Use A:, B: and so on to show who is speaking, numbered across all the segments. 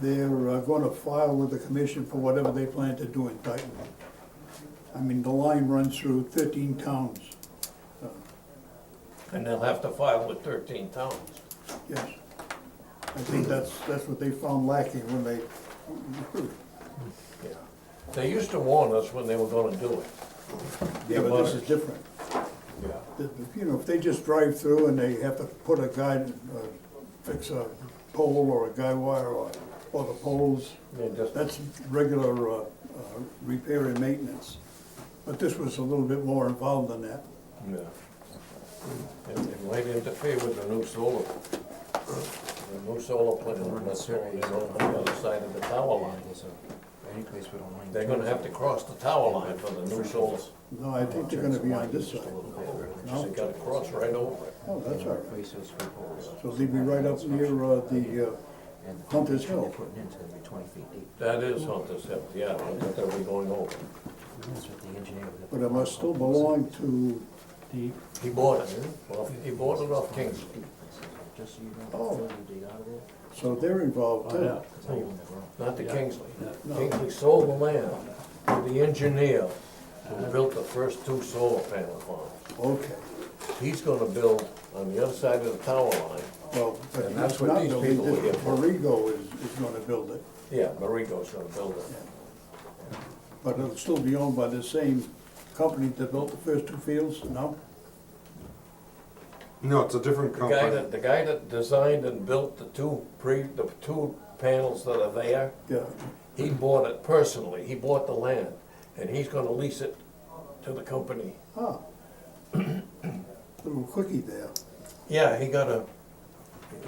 A: they're uh, gonna file with the commission for whatever they plan to do in Dayton. I mean, the line runs through thirteen towns,
B: And they'll have to file with thirteen towns.
A: yes. I think that's, that's what they found lacking when they,
B: Yeah. They used to warn us when they were gonna do it.
A: yeah, but this is different.
B: Yeah.
A: If- if, You know, if they just drive through and they have to put a guy, uh, fix a pole or a guy wire or, or the poles,
B: They just,
A: that's regular, uh, uh, repair and maintenance. But this was a little bit more involved than that.
B: yeah. And they might interfere with the new solar. The new solar plant that's going in on the other side of the tower line.
C: Any place we don't mind.
B: They're gonna have to cross the tower line for the new solar.
A: No, I think they're gonna be on this side.
B: They gotta cross right over it.
A: Oh, that's all right.
C: Places for poles.
A: So they'd be right up near, uh, the, uh,
C: And the
A: Hunter's
C: foundation
A: Hill.
C: They're putting into the twenty feet deep.
B: That is Hunter's Hill, yeah, that they'll be going over.
C: That's what the engineer. did.
A: but it must still belong to the,
B: He bought it, Well, he bought it off King's.
C: Just so you
A: Oh.
C: know, fill the dig out of there.
A: so they're involved too.
B: Yeah.
C: 'cause I own that room.
B: Not to Kingsley.
A: No.
B: Kingsley sold the land to the engineer who built the first two solar panel farms.
A: Okay,
B: He's gonna build on the other side of the tower line.
A: well, but
B: And that's
A: he's
B: what
A: not
B: these
A: building,
B: people were
A: this
B: getting.
A: Borrego is, is gonna build it.
B: Yeah, Marigo's gonna build it.
A: But it'll still be owned by the same company that built the first two fields, no?
D: No, it's a different
B: The guy
D: company.
B: that, the guy that designed and built the two pre, the two panels that are there,
A: Yeah,
B: he bought it personally. He bought the land and he's gonna lease it to the company.
A: ah. Little quickie there.
B: Yeah, he got a,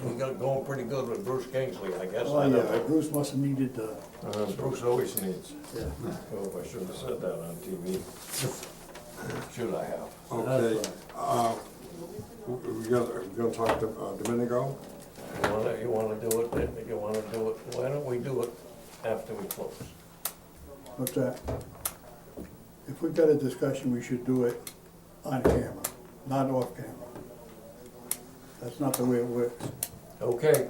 B: he got going pretty good with Bruce Kingsley, I guess.
A: Oh,
B: I don't
A: yeah,
B: know.
A: Bruce must have needed, uh,
B: Uh, Bruce always needs.
A: yeah.
B: Oh, I shouldn't have said that on TV. Should I have?
D: Okay, uh, we we got, we're gonna talk to uh, Domenico?
B: You wanna, you wanna do it, then? you wanna do it, why don't we do it after we close?
A: What's that? If we've got a discussion, we should do it on camera, not off camera. That's not the way it works.
B: Okay,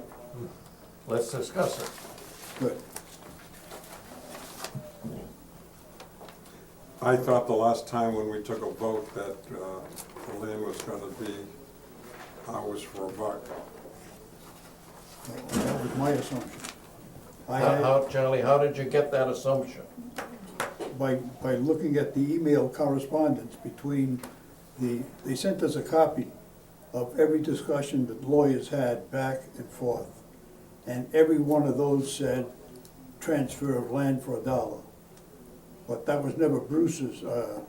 B: let's discuss it.
A: Good.
D: I thought the last time when we took a vote that uh, the land was gonna be ours for a buck.
A: That was my assumption. I
B: How,
A: had,
B: how- Charlie, how did you get that assumption?
A: by, by looking at the email correspondence between the, they sent us a copy of every discussion that lawyers had back and forth. And every one of those said, transfer of land for a dollar. But that was never Bruce's, uh,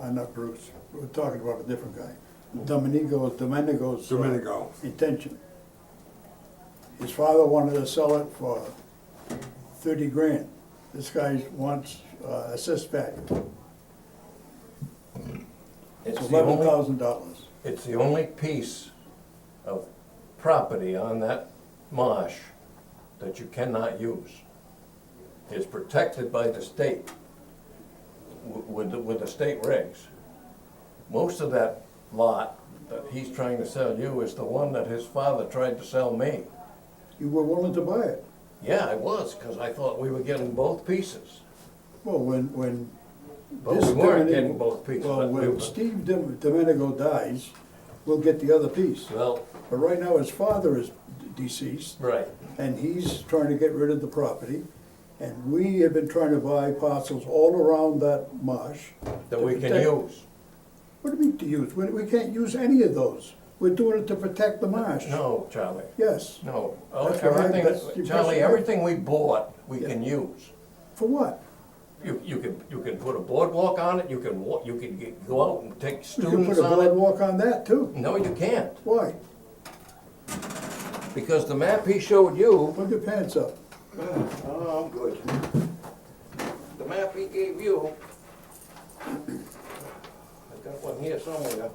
A: uh, not Bruce, we're talking about a different guy. Domenico, Domenico's. uh,
D: Domenico.
A: Intention. His father wanted to sell it for thirty grand. This guy wants, uh, assessed value,
B: It's the
A: eleven
B: only,
A: thousand dollars.
B: it's the only piece of property on that marsh that you cannot use. It's protected by the state wi- with, the- with the state regs. Most of that lot that he's trying to sell you is the one that his father tried to sell me.
A: You were willing to buy it.
B: Yeah, I was, because I thought we were getting both pieces.
A: Well, when, when.
B: But
A: this
B: we weren't
A: Domenico-
B: getting both pieces,
A: Well,
B: but we
A: when
B: were-
A: Steve Dom- Domenico dies, we'll get the other piece.
B: Well,
A: But right now, his father is deceased,
B: right.
A: and he's trying to get rid of the property. And we have been trying to buy parcels all around that marsh.
B: That
A: to
B: we can
A: protect-
B: use.
A: What do you mean to use? We, we can't use any of those. We're doing it to protect the marsh.
B: No, Charlie,
A: Yes.
B: no.
A: That's what I- Oh, that's the
B: Everything, Charlie,
A: impression I-
B: everything we bought, we
A: Yeah.
B: can use.
A: For what?
B: You, you can, you can put a boardwalk on it, you can wa, you can get- go out and take
A: You can put
B: students
A: a
B: on it.
A: boardwalk on that too.
B: No, you can't,
A: Why?
B: because the map he showed you,
A: Put your pants up.
B: oh, I'm good. The map he gave you. I got one here somewhere.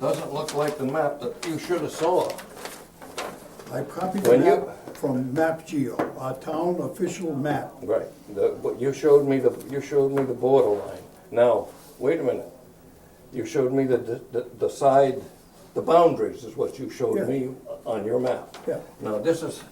B: Doesn't look like the map that you should have saw.
A: I copied the
B: When you-
A: map from Map Geo, our town official map.
B: Right, the, but you showed me the, you showed me the borderline. Now, wait a minute. You showed me the, the, the side, the boundaries is what you
A: Yeah.
B: showed me on your map.
A: Yeah.
B: Now, this is,